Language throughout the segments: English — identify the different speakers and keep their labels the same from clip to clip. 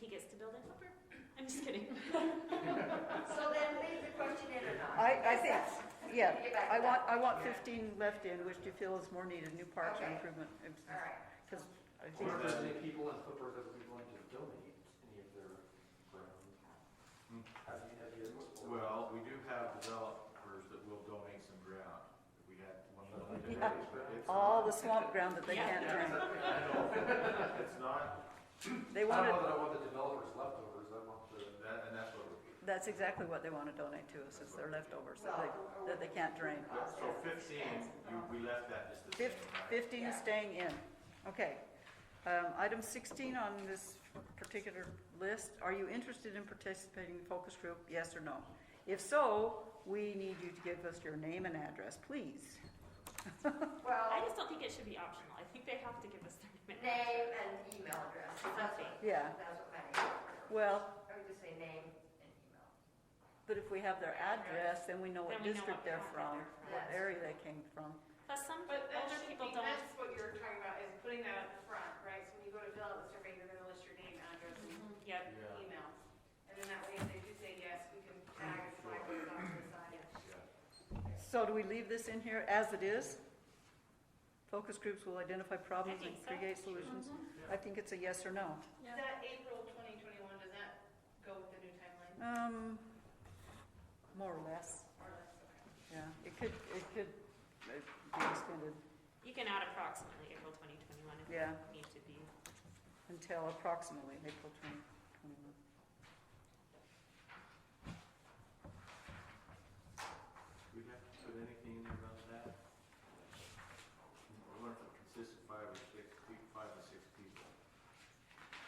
Speaker 1: he gets to build a helper. I'm just kidding.
Speaker 2: So then leave the question in or not?
Speaker 3: I, I think, yeah,
Speaker 2: Get back
Speaker 3: I
Speaker 2: to
Speaker 3: want,
Speaker 2: that.
Speaker 3: I want fifteen left in, which do you feel is more needed, new parks
Speaker 2: Okay.
Speaker 3: and improvement.
Speaker 2: All right.
Speaker 3: Because I think,
Speaker 4: Or that many people in Flipper that would be willing to donate any of their ground.
Speaker 5: Hmm.
Speaker 4: Have you, have you?
Speaker 6: Well, we do have developers that will donate some ground. We had one that only
Speaker 3: Yeah.
Speaker 6: donated, but it's.
Speaker 3: all the
Speaker 6: not-
Speaker 3: swamp ground that they
Speaker 1: Yeah.
Speaker 3: can't
Speaker 6: Yeah,
Speaker 3: drain,
Speaker 6: I know. It's not,
Speaker 3: they
Speaker 4: I don't
Speaker 3: wanted,
Speaker 4: know that I want the developers leftovers, I want the,
Speaker 6: that, and that's what we,
Speaker 3: that's exactly what they want to donate to us, is their leftovers that they, that they can't drain.
Speaker 6: so fifteen, you, we left that just the same.
Speaker 3: Fif-
Speaker 6: right?
Speaker 3: Fifteen is staying in, okay. Um, item sixteen on this particular list, are you interested in participating in the focus group, yes or no? If so, we need you to give us your name and address, please.
Speaker 1: I
Speaker 2: Well,
Speaker 1: just don't think it should be optional. I think they have to give us their name.
Speaker 2: name and email address. That's what,
Speaker 3: Yeah,
Speaker 2: that's what my name is.
Speaker 3: well,
Speaker 2: I would just say name and email.
Speaker 3: But if we have their address, then we know
Speaker 1: Then
Speaker 3: what
Speaker 1: we know
Speaker 3: district
Speaker 1: what
Speaker 3: they're
Speaker 1: packet
Speaker 3: from,
Speaker 1: they're
Speaker 3: what
Speaker 2: Yes.
Speaker 3: area they came from.
Speaker 1: Plus, some
Speaker 7: But that
Speaker 1: older
Speaker 7: should
Speaker 1: people
Speaker 7: be-
Speaker 1: don't.
Speaker 7: That's what you're talking about, is putting that up front, right? So when you go to fill out the survey, you're gonna list your name, address, and
Speaker 1: Mm-hmm. Yep.
Speaker 6: Yeah,
Speaker 7: email. And then that way, if they do say yes, we can tag and flag it on the side.
Speaker 6: yeah.
Speaker 3: So do we leave this in here as it is? Focus groups will identify problems and
Speaker 1: think so.
Speaker 3: create solutions? I think it's a yes or no.
Speaker 1: Yeah.
Speaker 7: Is that April twenty twenty-one, does that go with the new timeline
Speaker 3: Um, more or less,
Speaker 7: or less? Okay.
Speaker 3: yeah. It could, it could uh, be extended
Speaker 1: You can add approximately April 2021 if
Speaker 3: Yeah.
Speaker 1: you need to be.
Speaker 3: until approximately April twenty twenty-one.
Speaker 6: Do we have to put anything in there about that? We want it to consist of five or six, pe- five or six people.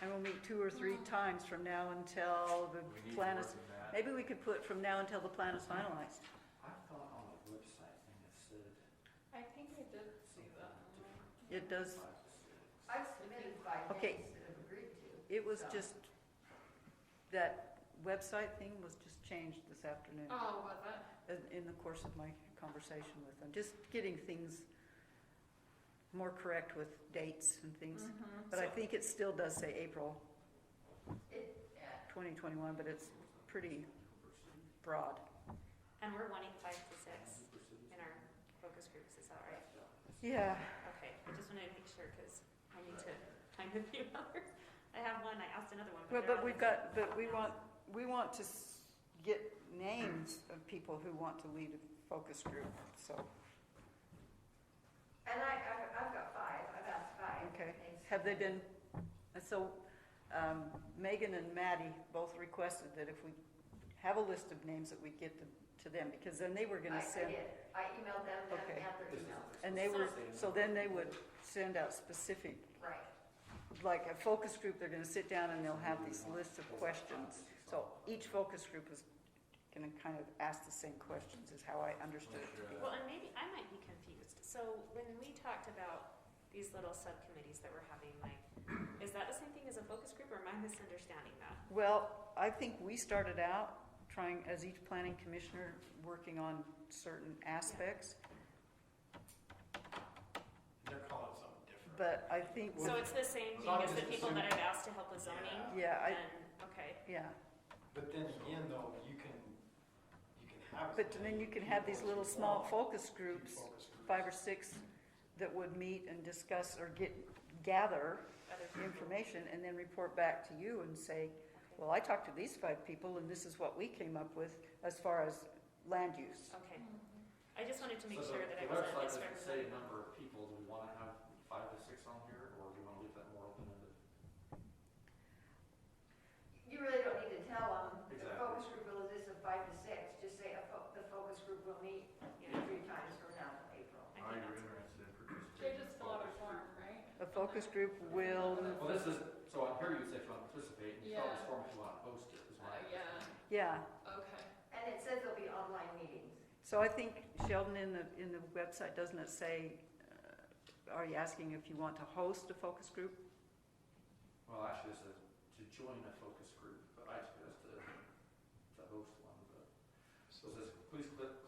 Speaker 3: And we'll meet two or
Speaker 1: Mm.
Speaker 3: three times from now until
Speaker 6: We
Speaker 3: the
Speaker 6: need
Speaker 3: plan
Speaker 6: more
Speaker 3: is,
Speaker 6: than that.
Speaker 3: maybe we could put from now until the plan is finalized.
Speaker 4: I thought on the website thing it said
Speaker 8: I think I did see that.
Speaker 3: It does,
Speaker 4: five to six.
Speaker 2: I've submitted five
Speaker 3: Okay.
Speaker 2: names that have agreed to.
Speaker 3: It was
Speaker 2: So-
Speaker 3: just, that website thing was just changed this afternoon
Speaker 8: Oh, was it?
Speaker 3: in- in the course of my conversation with them, just getting things more correct with dates and things.
Speaker 8: Mm-hmm.
Speaker 3: But I
Speaker 1: So-
Speaker 3: think it still does say April
Speaker 2: It, yeah.
Speaker 3: 2021, but it's pretty broad.
Speaker 1: And we're wanting five to six in our focus groups. Is that right?
Speaker 3: Yeah,
Speaker 1: Okay. I just wanted to make sure because I need to find a few others. I have one. I asked another one.
Speaker 3: well,
Speaker 1: they're Um,
Speaker 3: but
Speaker 1: on
Speaker 3: we've
Speaker 1: this-
Speaker 3: got, but we want, we want to s- get names of people who want to lead a focus group, so,
Speaker 2: And I, I've, I've got five, I've asked five.
Speaker 3: okay.
Speaker 2: names.
Speaker 3: Have they been, uh, so um, Megan and Maddie both requested that if we have a list of names that we get them- to them, because then they were
Speaker 2: I, I
Speaker 3: gonna send,
Speaker 2: did, I emailed them, them
Speaker 3: Okay.
Speaker 2: and their
Speaker 4: This is-
Speaker 2: email,
Speaker 3: and they were,
Speaker 4: So-
Speaker 3: so then they would send out specific,
Speaker 2: right.
Speaker 3: like a focus group, they're gonna sit down and they'll have these lists of questions. So each focus group is gonna kind of ask the same questions, is how I understood it to be.
Speaker 1: Well, and maybe I might be confused. So when we talked about these little subcommittees that we're having, like, is that the same thing as a focus group or am I misunderstanding that?
Speaker 3: Well, I think we started out trying, as each planning commissioner, working on certain aspects,
Speaker 5: They're calling it something different.
Speaker 3: but I think,
Speaker 1: So it's the same thing as the people that I've asked to help with zoning?
Speaker 3: yeah, I,
Speaker 1: And, okay,
Speaker 3: yeah.
Speaker 5: But then again, though, you can, you can have. as
Speaker 3: But
Speaker 5: many
Speaker 3: then you can have these
Speaker 5: people as
Speaker 3: little
Speaker 5: you
Speaker 3: small
Speaker 5: want,
Speaker 3: focus
Speaker 5: few
Speaker 3: groups,
Speaker 5: focus groups.
Speaker 3: five or six, that would meet and discuss or get, gather
Speaker 1: other people.
Speaker 3: information and then report back to you and say,
Speaker 1: Okay.
Speaker 3: well, I talked to these five people and this is what we came up with as far as land use.
Speaker 1: Okay. I just wanted to make
Speaker 4: So
Speaker 1: sure
Speaker 4: the-
Speaker 1: that I
Speaker 4: the
Speaker 1: wasn't
Speaker 4: website doesn't Say
Speaker 1: misrepresenting.
Speaker 4: number of people, do we wanna have five to six on here, or do we wanna leave that more open ended?
Speaker 2: You really don't need to tell them, the
Speaker 4: Exactly.
Speaker 2: focus group will exist of five to six, just say a fo- the focus group will meet
Speaker 1: Yeah.
Speaker 2: three times from now in April.
Speaker 1: I
Speaker 6: Are
Speaker 1: think
Speaker 6: you
Speaker 1: that's-
Speaker 6: interested in participating?
Speaker 8: They just fill out a form, right?
Speaker 3: A focus group will,
Speaker 4: Well, this is, so on here you say if you wanna participate, and you fill out this
Speaker 8: Yeah.
Speaker 4: form if you wanna post it, is my.
Speaker 8: Uh, yeah.
Speaker 3: yeah.
Speaker 8: Okay.
Speaker 2: And it says there'll be online meetings.
Speaker 3: So I think Sheldon, in the, in the website, doesn't it say, uh, are you asking if you want to host a focus group?
Speaker 4: Well, actually, it says to join a focus group, but I suggest to, to host one, but.
Speaker 5: So
Speaker 4: So it says, please click,